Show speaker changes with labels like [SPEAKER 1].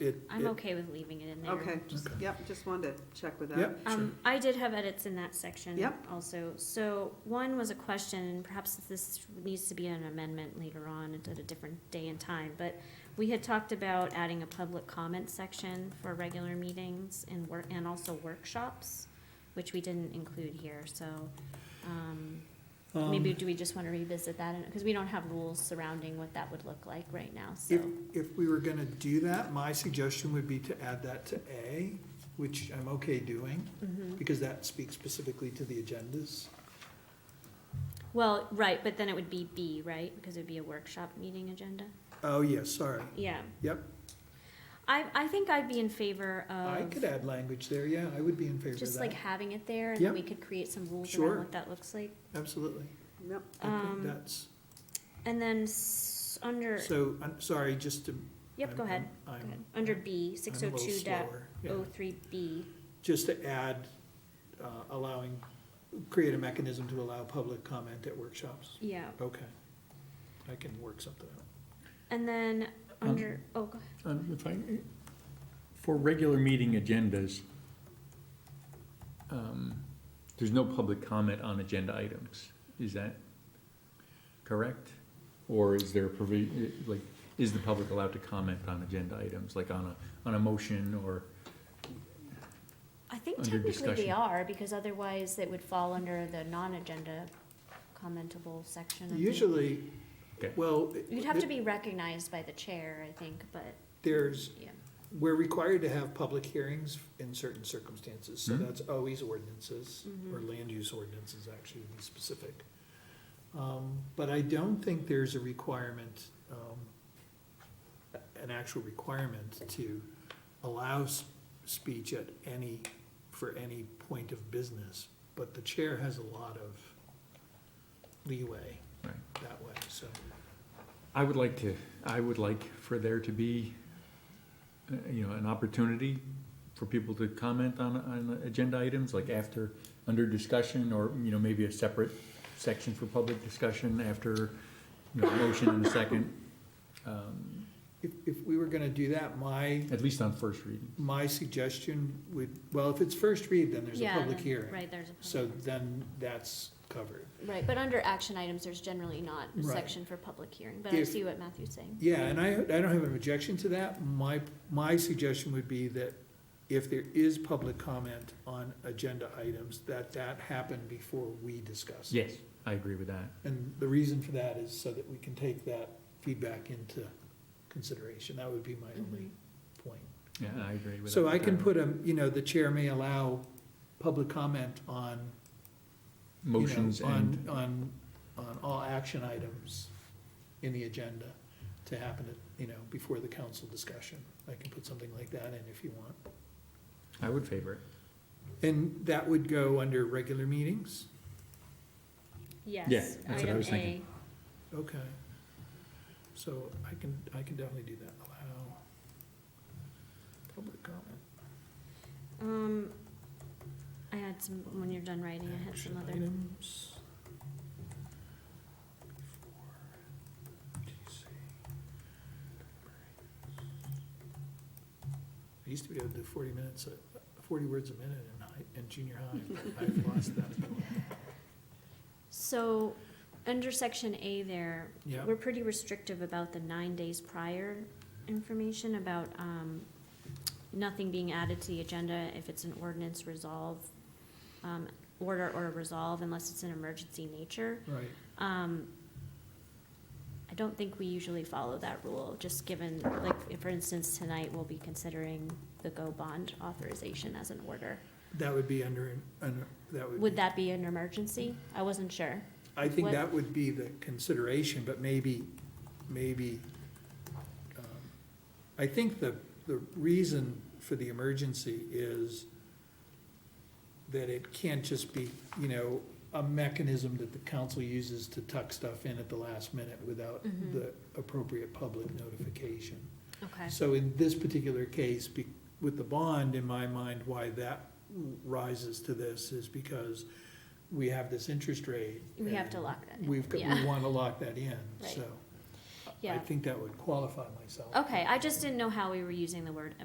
[SPEAKER 1] it.
[SPEAKER 2] I'm
[SPEAKER 1] it-
[SPEAKER 2] okay with leaving it in there.
[SPEAKER 3] Okay, just,
[SPEAKER 1] Okay.
[SPEAKER 3] yep, just wanted to check with that.
[SPEAKER 1] Yep, sure.
[SPEAKER 2] Um, I did have edits in that section.
[SPEAKER 3] Yep.
[SPEAKER 2] Also, so one was a question, and perhaps this needs to be an amendment later on at a different day and time, but we had talked about adding a public comment section for regular meetings and work, and also workshops, which we didn't include here, so, um, maybe
[SPEAKER 1] Um,
[SPEAKER 2] do we just wanna revisit that? Because we don't have rules surrounding what that would look like right now, so.
[SPEAKER 1] If, if we were gonna do that, my suggestion would be to add that to A, which I'm okay doing,
[SPEAKER 2] Mhm.
[SPEAKER 1] because that speaks specifically to the agendas.
[SPEAKER 2] Well, right, but then it would be B, right? Because it'd be a workshop meeting agenda?
[SPEAKER 1] Oh, yes, sorry.
[SPEAKER 2] Yeah.
[SPEAKER 1] Yep.
[SPEAKER 2] I, I think I'd be in favor
[SPEAKER 1] I
[SPEAKER 2] of
[SPEAKER 1] could add language there, yeah, I would be in favor of
[SPEAKER 2] just like
[SPEAKER 1] that.
[SPEAKER 2] having it there and then
[SPEAKER 1] Yep.
[SPEAKER 2] we could create some rules
[SPEAKER 1] Sure.
[SPEAKER 2] around what that looks like.
[SPEAKER 1] Absolutely.
[SPEAKER 3] Yep,
[SPEAKER 1] I think
[SPEAKER 2] Um,
[SPEAKER 1] that's,
[SPEAKER 2] And then s- under,
[SPEAKER 1] so, I'm sorry, just to.
[SPEAKER 2] yep, go
[SPEAKER 1] I'm-
[SPEAKER 2] ahead.
[SPEAKER 1] I'm-
[SPEAKER 2] Go
[SPEAKER 1] I'm-
[SPEAKER 2] ahead. Under B,
[SPEAKER 1] I'm
[SPEAKER 2] six
[SPEAKER 1] a
[SPEAKER 2] oh
[SPEAKER 1] little
[SPEAKER 2] two dot
[SPEAKER 1] slower, yeah.
[SPEAKER 2] oh three B.
[SPEAKER 1] Just to add, uh, allowing, create a mechanism to allow public comment at workshops.
[SPEAKER 2] Yeah.
[SPEAKER 1] Okay. I can work something out.
[SPEAKER 2] And then
[SPEAKER 4] Um,
[SPEAKER 2] under, oh, go ahead.
[SPEAKER 4] Um, If I, for regular meeting agendas, um, there's no public comment on agenda items. Is that correct? Or is there, provi- eh, like, is the public allowed to comment on agenda items, like on a, on a motion or?
[SPEAKER 2] I think
[SPEAKER 4] Under
[SPEAKER 2] technically they
[SPEAKER 4] discussion.
[SPEAKER 2] are because otherwise it would fall under the non-agenda commentable section. I think.
[SPEAKER 1] Usually,
[SPEAKER 4] Okay.
[SPEAKER 1] well.
[SPEAKER 2] You'd have to be recognized by the chair, I think, but,
[SPEAKER 1] There's,
[SPEAKER 2] yeah.
[SPEAKER 1] we're required to have public hearings in certain circumstances, so
[SPEAKER 4] Mhm.
[SPEAKER 1] that's always ordinances, or
[SPEAKER 2] Mhm.
[SPEAKER 1] land use ordinances actually, to be specific. Um, but I don't think there's a requirement, um, a- an actual requirement to allow s- speech at any, for any point of business, but the chair has a lot of leeway
[SPEAKER 4] Right.
[SPEAKER 1] that way, so.
[SPEAKER 4] I would like to, I would like for there to be, uh, you know, an opportunity for people to comment on, on agenda items, like after, under discussion, or, you know, maybe a separate section for public discussion after, you know, a motion and a second, um,
[SPEAKER 1] If, if we were gonna do that, my
[SPEAKER 4] at least on first reading.
[SPEAKER 1] My suggestion would, well, if it's first read, then there's a
[SPEAKER 2] Yeah,
[SPEAKER 1] public
[SPEAKER 2] then-
[SPEAKER 1] hearing.
[SPEAKER 2] Right, there's a
[SPEAKER 1] So
[SPEAKER 2] public,
[SPEAKER 1] then that's covered.
[SPEAKER 2] right, but under action items, there's generally not a
[SPEAKER 1] Right.
[SPEAKER 2] section for public hearing, but I
[SPEAKER 1] If-
[SPEAKER 2] see what Matthew's saying.
[SPEAKER 1] Yeah, and I, I don't have an objection to that. My, my suggestion would be that if there is public comment on agenda items, that that happen before we discuss.
[SPEAKER 4] Yes, I agree with that.
[SPEAKER 1] And the reason for that is so that we can take that feedback into consideration. That would be my only
[SPEAKER 2] Mm-hmm.
[SPEAKER 1] point.
[SPEAKER 4] Yeah, I agree with that. Um,
[SPEAKER 1] So I can put a, you know, the chair may allow public comment on you know,
[SPEAKER 4] Motions and,
[SPEAKER 1] On, on, on all action items in the agenda to happen, at you know, before the council discussion. I can put something like that in if you want.
[SPEAKER 4] I would favor it.
[SPEAKER 1] And that would go under regular meetings?
[SPEAKER 4] Yeah,
[SPEAKER 2] Yes,
[SPEAKER 4] that's what I
[SPEAKER 2] item
[SPEAKER 4] was
[SPEAKER 2] A,
[SPEAKER 4] thinking.
[SPEAKER 1] Okay. So I can, I can definitely do that, allow public comment.
[SPEAKER 2] um, I had some, when you're done writing, Oh, I had
[SPEAKER 1] Action
[SPEAKER 2] some other,
[SPEAKER 1] items. Before TC. I used to be able to do forty minutes, uh, forty words a minute in high, in junior high, but I've lost that. ability.
[SPEAKER 2] so, under section A there,
[SPEAKER 1] Yeah,
[SPEAKER 2] we're pretty restrictive about the nine days prior information about, um, nothing being added to the agenda if it's an ordinance resolve, um, order or resolve unless it's an emergency nature.
[SPEAKER 1] right,
[SPEAKER 2] Um, I don't think we usually follow that rule, just given, like, if, for instance, tonight we'll be considering the GO bond authorization as an order.
[SPEAKER 1] that would be under, under, that would.
[SPEAKER 2] Would
[SPEAKER 1] be-
[SPEAKER 2] that be an emergency? I wasn't sure.
[SPEAKER 1] I think
[SPEAKER 2] what-
[SPEAKER 1] that would be the consideration, but maybe, maybe, um, I think the, the reason for the emergency is that it can't just be, you know, a mechanism that the council uses to tuck stuff in at the last minute without
[SPEAKER 2] Mhm.
[SPEAKER 1] the appropriate public notification.
[SPEAKER 2] Okay.
[SPEAKER 1] So in this particular case, be- with the bond, in my mind, why that rises to this is because we have this interest rate.
[SPEAKER 2] We have to
[SPEAKER 1] and
[SPEAKER 2] lock that in,
[SPEAKER 1] We've, got-
[SPEAKER 2] yeah.
[SPEAKER 1] we want to lock that in,
[SPEAKER 2] Right.
[SPEAKER 1] so. I
[SPEAKER 2] Yeah.
[SPEAKER 1] think that would qualify myself.
[SPEAKER 2] Okay, I just didn't know how we were using the word